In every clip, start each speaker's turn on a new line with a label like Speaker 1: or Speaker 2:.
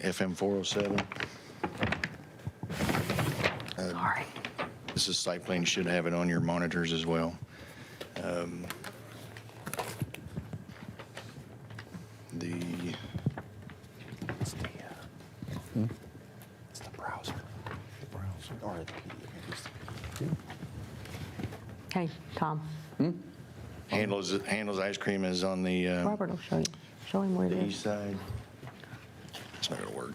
Speaker 1: FM 407.
Speaker 2: Sorry.
Speaker 1: This is site plan, you should have it on your monitors as well. Um, The,
Speaker 3: It's the, uh, it's the browser. Hmm? The browser. Or the PDF. It's the PDF.
Speaker 2: Hey, Tom,
Speaker 1: handles, handles ice cream is on the, uh,
Speaker 2: Robert will show you. Show him where it
Speaker 1: the
Speaker 2: is.
Speaker 1: east side. It's not gonna work.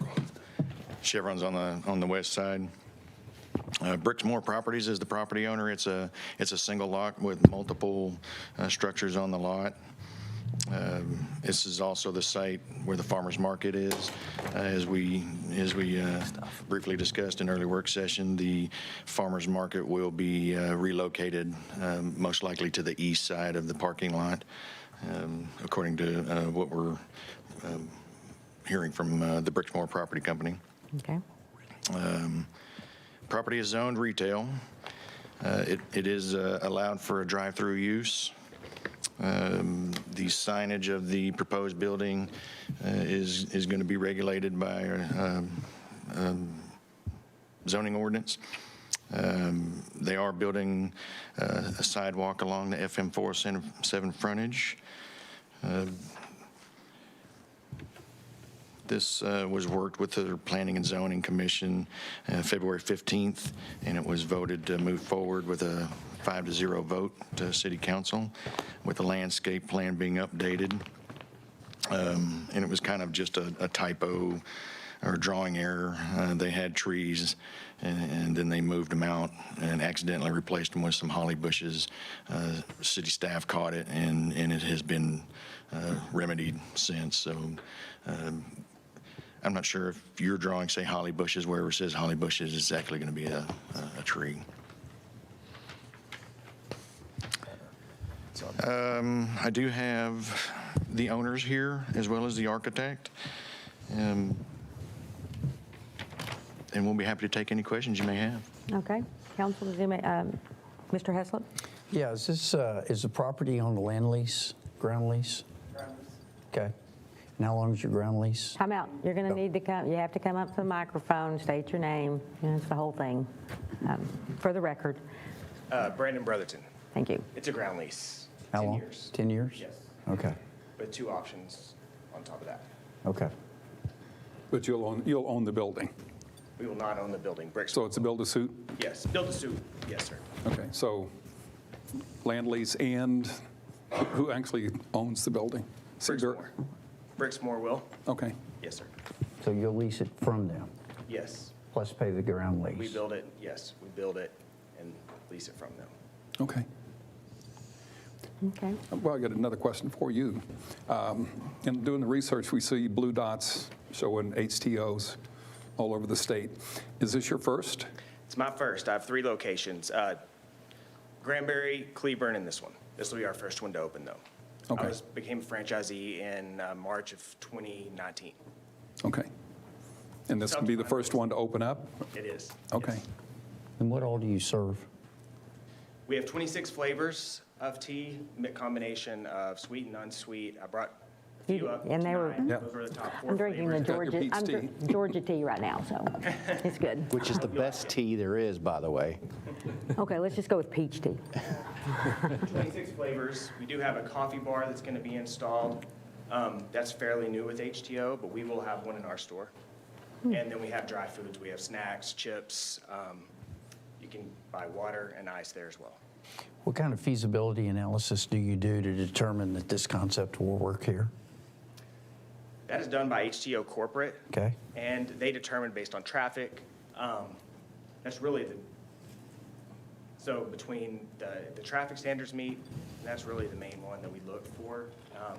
Speaker 1: Chevron's on the, on the west side. Uh, Bricksmore Properties is the property owner. It's a, it's a single lot with multiple uh, structures on the lot. Um, This is also the site where the farmer's market is. Uh, As we, as we uh, briefly discussed in early work session, the farmer's market will be uh, relocated, um, most likely to the east side of the parking lot, um, according to uh, what we're um, hearing from uh, the Bricksmore Property Company.
Speaker 2: Okay.
Speaker 1: Property is zoned retail. Uh, It It is uh, allowed for a drive-through use. Um, The signage of the proposed building uh, is is going to be regulated by um, um, zoning ordinance. Um, They are building uh, a sidewalk along the FM 407 frontage. This uh, was worked with the Planning and Zoning Commission uh, February 15th, and it was voted to move forward with a five to zero vote to City Council, with the landscape plan being updated. Um, And it was kind of just a a typo or drawing error. Uh, They had trees, and and then they moved them out and accidentally replaced them with some holly bushes. Uh, City staff caught it, and and it has been uh, remedied since, so I'm not sure if your drawing say holly bushes, wherever it says holly bushes, it's actually going to be a, a- a tree. Um, I do have the owners here as well as the architect. Um, And we'll be happy to take any questions you may have.
Speaker 2: Okay. Council, does anybody- um, Mr. Heslop?
Speaker 4: Yeah, is this, uh, is the property on the land lease, ground lease? Okay. And how long is your ground lease?
Speaker 2: Come out. You're going to need to come, you have to come up to the microphone, state your name, you know, it's the whole thing, um, for the record.
Speaker 5: Uh, Brandon Brotherton.
Speaker 2: Thank you.
Speaker 5: It's a ground lease.
Speaker 4: How
Speaker 5: 10
Speaker 4: long?
Speaker 5: years.
Speaker 4: 10 years?
Speaker 5: Yes.
Speaker 4: Okay,
Speaker 5: But two options on top of that.
Speaker 4: okay.
Speaker 6: But you'll own, you'll own the building.
Speaker 5: We will not own the building. Bricks.
Speaker 6: So it's a build-to-suit?
Speaker 5: Yes, build a suit. Yes, sir.
Speaker 6: Okay, so land lease and who actually owns the building? City Dirt?
Speaker 5: Bricksmore. Bricksmore will.
Speaker 6: Okay.
Speaker 5: Yes, sir.
Speaker 4: So you'll lease it from them,
Speaker 5: Yes.
Speaker 4: plus pay the ground lease?
Speaker 5: We build it. Yes, we build it and lease it from them.
Speaker 6: Okay.
Speaker 2: Okay.
Speaker 6: Well, I got another question for you. Um, In doing the research, we see blue dots showing HTOs all over the state. Is this your first?
Speaker 5: It's my first. I have three locations. Uh, Granbury, Cleburne, and this one. This will be our first one to open, though. I
Speaker 6: Okay.
Speaker 5: was, became a franchisee in uh, March of 2019.
Speaker 6: Okay. And this can be the first one to open up?
Speaker 5: It is.
Speaker 6: Okay.
Speaker 5: Yes.
Speaker 4: And what all do you serve?
Speaker 5: We have 26 flavors of tea, mi- combination of sweet and unsweet. I brought a
Speaker 2: You
Speaker 5: few
Speaker 2: did,
Speaker 5: up
Speaker 2: and they were-
Speaker 5: tonight.
Speaker 6: Yeah.
Speaker 5: Those were the top four
Speaker 2: I'm drinking the
Speaker 5: flavors.
Speaker 6: got your
Speaker 2: Georgia,
Speaker 6: peach
Speaker 2: I'm dr- Georgia tea right now, so it's good.
Speaker 7: Which is the best tea there is, by the way.
Speaker 2: Okay, let's just go with peach tea.
Speaker 5: 26 flavors. We do have a coffee bar that's going to be installed. Um, That's fairly new with HTO, but we will have one in our store.
Speaker 2: Hmm.
Speaker 5: And then we have dry foods. We have snacks, chips. um, You can buy water and ice there as well.
Speaker 4: What kind of feasibility analysis do you do to determine that this concept will work here?
Speaker 5: That is done by HTO Corporate.
Speaker 4: Okay.
Speaker 5: And they determine based on traffic, um, that's really the, so between the, the traffic standards meet, that's really the main one that we look for. Um,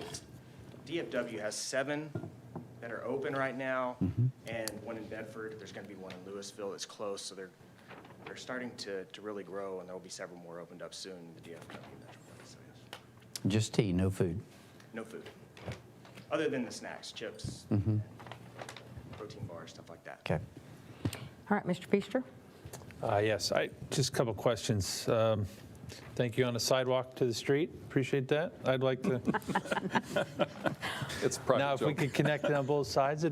Speaker 5: it's- DFW has seven that are open right now, and one in Bedford, there's gonna be one in Louisville that's closed, so they're, they're starting to, to really grow, and there'll be several more opened up soon in the DFW metroplex, so yes.
Speaker 4: Just tea, no food?
Speaker 5: No food, other than the snacks, chips, protein bars, stuff like that.
Speaker 4: Okay.
Speaker 2: All right, Mr. Feaster?
Speaker 8: Uh, Yes, I, just a couple questions. Um, Thank you on the sidewalk to the street, appreciate that. I'd like to,
Speaker 6: It's a private
Speaker 8: now if we
Speaker 6: joke.
Speaker 8: could connect it on both sides, it'd